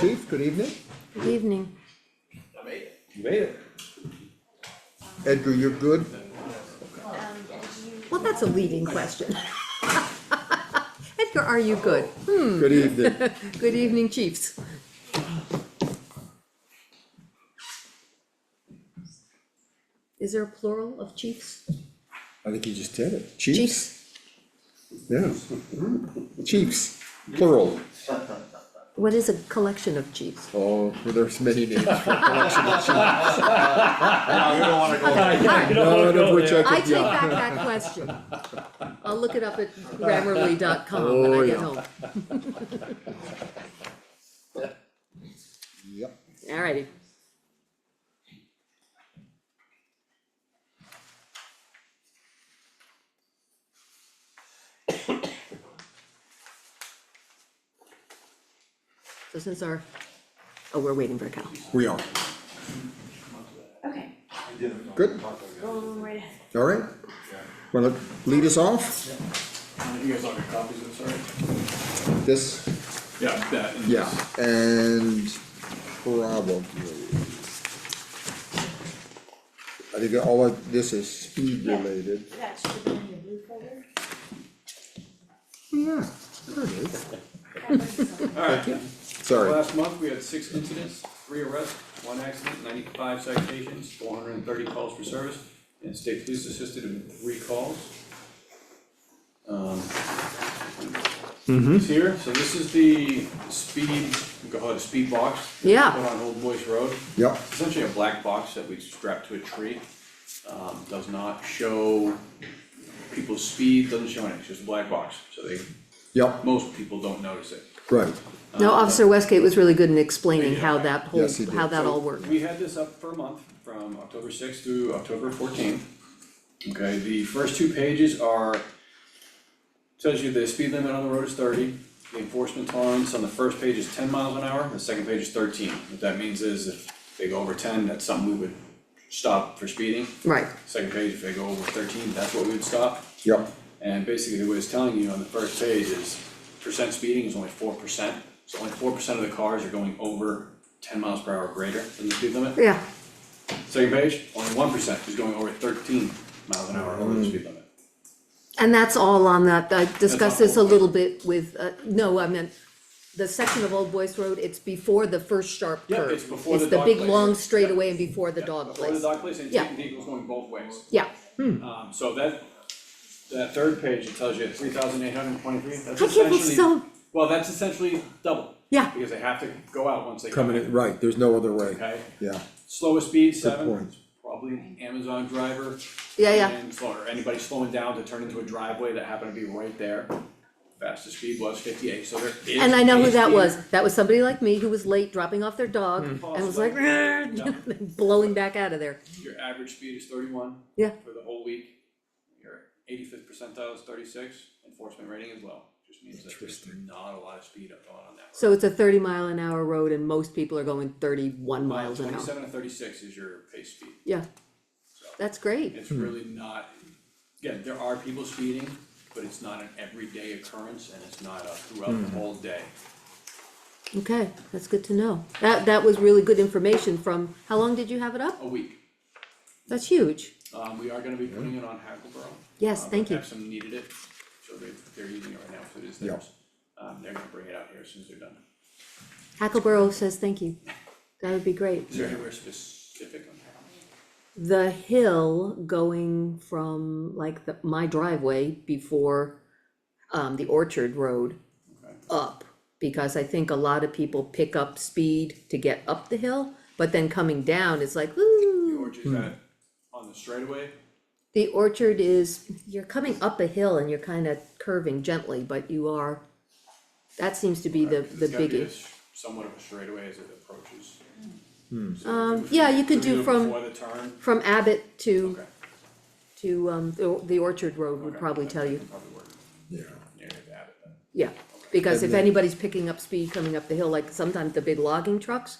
Chief, good evening. Good evening. You made it. Edgar, you're good? Well, that's a leading question. Edgar, are you good? Good evening. Good evening, chiefs. Is there a plural of chiefs? I think you just did it. Chiefs? Chiefs? Yeah. Chiefs, plural. What is a collection of chiefs? Oh, well, there's many names for a collection of chiefs, we don't wanna go there. Yeah, you don't wanna none of go which I there. I could, take yeah. back that question. I'll look it up at grammarly.com when Oh, I get yeah. home. Yep. Alrighty. So since our, oh, we're waiting for Cal. We are. Okay, Good, roll right ahead. all right. Wanna lead us off? You guys all got copies, I'm sorry? This, Yeah, that. and- yeah, and probably. I think all of this is speed Yeah. related. That should have been in your blue folder. Yeah, there it is. That was something. Alright, Sorry, last month, we had six incidents, three arrests, one accident, ninety-five citations, four hundred and thirty calls for service, and state police assisted in three calls. Um, Mm-hmm. It's here, so this is the speed, we call it a speed box. that we Yeah. Put on Old Boys Road. yep, essentially a black box that we strap to a tree. Um, does not show people's speed, doesn't show anything, it's just a black box, so they, yep, most people don't notice it. right, No, Officer Westgate was really good in explaining Yeah. how that whole, Yes, he did. how that all worked. We had this up for a month, from October sixth through October fourteenth. Okay, the first two pages are, tells you the speed limit on the road is thirty. The enforcement tolerance on the first page is ten miles an hour, the second page is thirteen. What that means is if they go over ten, that's something we would stop for speeding. Right, second page, if they go over thirteen, that's what we would stop. yep, And basically, what it's telling you on the first page is percent speeding is only four percent. So only four percent of the cars are going over ten miles per hour or greater than the speed limit. yeah, Second page, only one percent is going over thirteen miles an hour over the speed limit. Mm. and that's all on that, I discussed on this a Old Boys. little bit with, uh, no, I meant the section of Old Boys Road, it's before the first sharp Yeah, curve. it's before the dog big, place. long Yeah. straightaway and before the dog Or the place, dock place, and Yeah. vehicles going both ways. yeah. Um, so that, that third page, it tells you three thousand eight hundred and twenty-three, that's I can't essentially. believe so, Well, that's essentially double. Yeah. Because they have to go out once they come coming in, right, there's no other way, Okay, yeah, slowest speed, point. seven, probably Amazon driver. yeah, yeah, And slow- or anybody slowing down to turn into a driveway that happened to be right there. Fastest speed was fifty-eight, so there is. and I know who a that speed. was, that was somebody like me who was late dropping off their dog, and was like, Possibly. Mm. Yeah. "Rrrr," blowing back out of there, Your average speed is thirty-one. Yeah. For the whole week. Your eighty-fifth percentile is thirty-six, enforcement rating is low, just means that there's not a lot of speed up going on that road. so it's a thirty mile an hour road and most people are going thirty-one Mile miles an hour, Twenty-seven to thirty-six is your pace speed, yeah. That's great, it's really not, again, there are people speeding, but it's not an everyday occurrence and it's not a throughout Hmm. the whole day. okay, that's good to know, that, that was really good information from, how long did you have it up? A week, That's huge, um, we are gonna be putting it on Hackleboro. Yes, Um, thank you. Epsom needed it, so they, they're using it right now, so it is Yeah. theirs. Um, they're gonna bring it out here as soon as they're done. Hackleboro says thank you, that would be great. Is there anywhere specific on that? the hill going from like the, my driveway before, um, the Orchard Road Okay. up. Because I think a lot of people pick up speed to get up the hill, but then coming down, it's like, ooh. Or just that on the straightaway, The Orchard is, you're coming up a hill and you're kind of curving gently, but you are, that seems to be the, because the Uh, it's gotta be a biggie. s- somewhat of a straightaway as it approaches. Um, yeah, you could do from, Before the turn, from Abbott to, okay. to, um, the the Orchard Road would okay, probably that tell you. can Probably work, yeah, yeah, you have to add it then. Yeah, because if And then- anybody's picking up speed coming up the hill, like sometimes the big logging trucks,